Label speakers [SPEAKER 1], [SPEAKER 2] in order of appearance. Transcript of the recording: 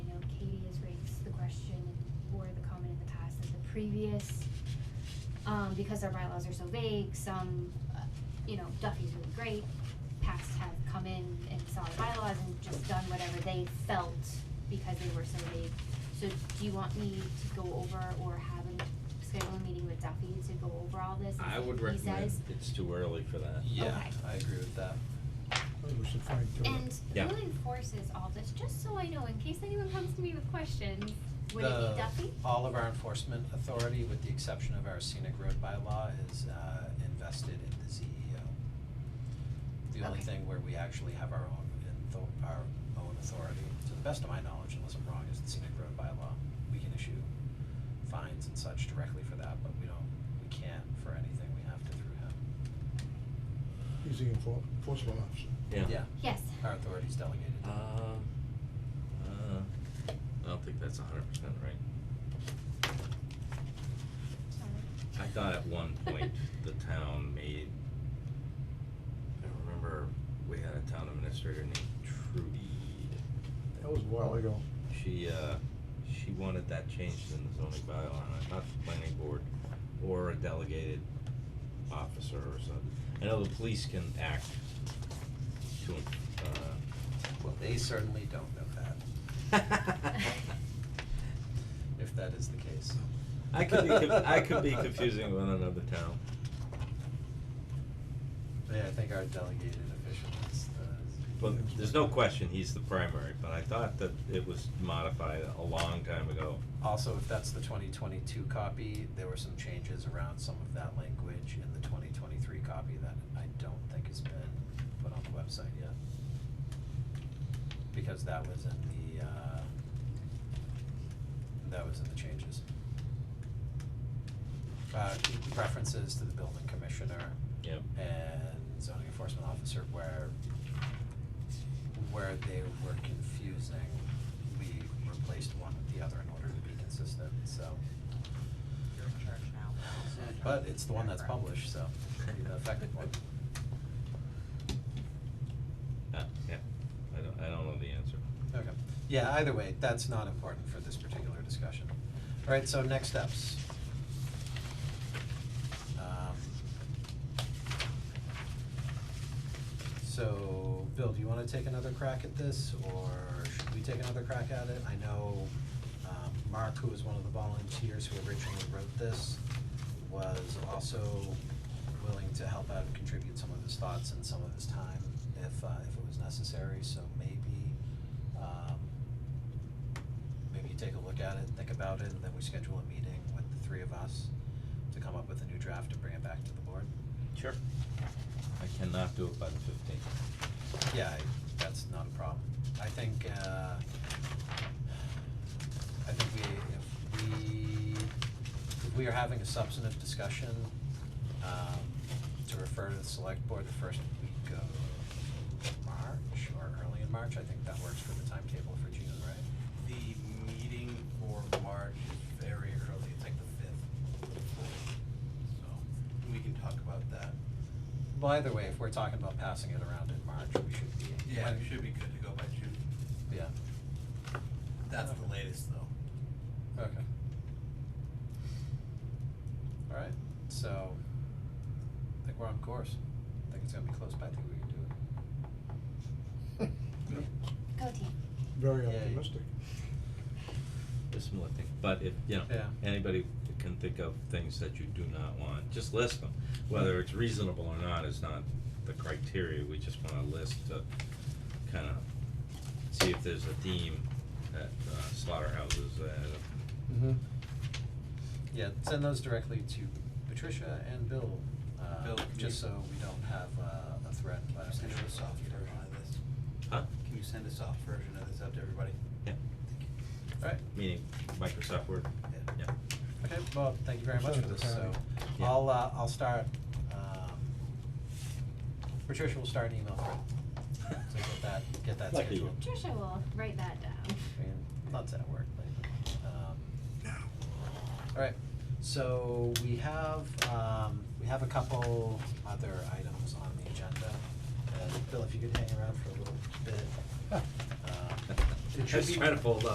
[SPEAKER 1] previous, um, because our bylaws are so vague, some, uh, you know, Duffy's really great, past have come in and saw the bylaws and just done whatever they felt because they were so vague. So do you want me to go over or have a, schedule a meeting with Duffy to go over all this and
[SPEAKER 2] I
[SPEAKER 1] see
[SPEAKER 2] would
[SPEAKER 1] what he
[SPEAKER 2] recommend,
[SPEAKER 1] says?
[SPEAKER 2] it's too early for that.
[SPEAKER 1] Yeah,
[SPEAKER 3] Yeah,
[SPEAKER 1] Okay.
[SPEAKER 3] I agree with that.
[SPEAKER 4] Well, we should fine tune it.
[SPEAKER 1] And
[SPEAKER 2] Yeah.
[SPEAKER 1] who enforces all this, just so I know, in case anyone comes to me with questions, would it be Duffy?
[SPEAKER 3] all of our enforcement authority, with the exception of our scenic road bylaw, is uh invested in the CEO. The only
[SPEAKER 1] Okay.
[SPEAKER 3] thing where we actually have our own intho- our own authority, to the best of my knowledge, unless I'm wrong, is the scenic road bylaw. We can issue fines and such directly for that, but we don't, we can't for anything, we have to through him.
[SPEAKER 4] He's the enfor- enforcement officer.
[SPEAKER 2] Oh, Yeah.
[SPEAKER 1] Yes.
[SPEAKER 3] Our authority's delegated to him.
[SPEAKER 2] Um, uh, I don't think that's hundred percent right. I thought at one point the town made, I remember we had a town administrator named Trudy.
[SPEAKER 4] That was a while ago.
[SPEAKER 2] She, uh, she wanted that changed in the zoning bylaw, and I thought the planning board or a delegated officer or something. I know the police can act to,
[SPEAKER 3] Well, they certainly don't know that,
[SPEAKER 2] uh,
[SPEAKER 3] if that is the case.
[SPEAKER 2] I could be conf- I could be confusing with another town.
[SPEAKER 3] Yeah, I think our delegated official is the.
[SPEAKER 2] But there's no question he's the primary, but I thought that it was modified a long time ago.
[SPEAKER 3] Also, if that's the twenty twenty-two copy, there were some changes around some of that language in the twenty twenty-three copy that I don't think has been put on the website yet. Because that was in the, uh, that was in the changes. Uh, references to the building commissioner
[SPEAKER 2] Yep.
[SPEAKER 3] and zoning enforcement officer where where they were confusing, we replaced one with the other in order to be consistent, so. But it's the one that's published, so be the effective one.
[SPEAKER 2] Uh, yeah, I don't, I don't know the answer.
[SPEAKER 3] Okay, yeah, either way, that's not important for this particular discussion. Alright, so next steps. Um, So, Bill, do you wanna take another crack at this, or should we take another crack at it? I know, um, Mark, who was one of the volunteers who originally wrote this, was also willing to help out and contribute some of his thoughts and some of his time if, uh, if it was necessary, so maybe, um, maybe you take a look at it, think about it, and then we schedule a meeting with the three of us to come up with a new draft and bring it back to the board.
[SPEAKER 2] Sure. I cannot do it by the fifteenth.
[SPEAKER 3] Yeah, I- that's not a problem. I think, uh, I think we, if we, if we are having a substantive discussion, um, to refer to the select board the first week of March or early in March, I think that works for the timetable for June, right?
[SPEAKER 5] The meeting for March is very early, it's like the fifth. So, we can talk about that.
[SPEAKER 3] Well, either way, if we're talking about passing it around in March, we should be.
[SPEAKER 5] Yeah, it should be good to go by June.
[SPEAKER 3] Yeah,
[SPEAKER 5] That's the latest, though.
[SPEAKER 3] okay. Alright, so, I think we're on course. I think it's gonna be close, but I think we can do it.
[SPEAKER 1] Go team.
[SPEAKER 4] Very
[SPEAKER 3] Yeah, yeah.
[SPEAKER 4] optimistic.
[SPEAKER 2] There's some lifting, but if, you know,
[SPEAKER 3] Yeah.
[SPEAKER 2] anybody can think of things that you do not want, just list them. Whether it's reasonable or not is not the criteria, we just wanna list to kind of see if there's a theme at uh, slaughterhouses that
[SPEAKER 3] Mm-hmm. Yeah, send those directly to Patricia and Bill, uh,
[SPEAKER 5] Bill, can
[SPEAKER 3] just
[SPEAKER 5] you-
[SPEAKER 3] so we don't have uh, a threat by
[SPEAKER 5] Send
[SPEAKER 3] Patricia.
[SPEAKER 5] us a soft version of this.
[SPEAKER 2] Huh?
[SPEAKER 5] Can you send a soft version of this out to everybody?
[SPEAKER 2] Yeah.
[SPEAKER 3] Alright,
[SPEAKER 2] Meaning Microsoft Word?
[SPEAKER 5] Yeah.
[SPEAKER 2] Yeah.
[SPEAKER 3] okay, well, thank you very much for
[SPEAKER 4] Sure,
[SPEAKER 3] this, so,
[SPEAKER 2] Yeah.
[SPEAKER 3] I'll, uh, I'll start, um, Patricia will start an email thread, so get that, get that
[SPEAKER 2] Lucky you.
[SPEAKER 3] scheduled.
[SPEAKER 1] Trisha will write that down.
[SPEAKER 3] I mean, lots at work lately. Um, Alright, so we have, um, we have a couple other items on the agenda. Uh, And Bill, if you could hang around for a little bit. um, it
[SPEAKER 2] I
[SPEAKER 3] should
[SPEAKER 2] was
[SPEAKER 3] be-
[SPEAKER 2] trying to fold up.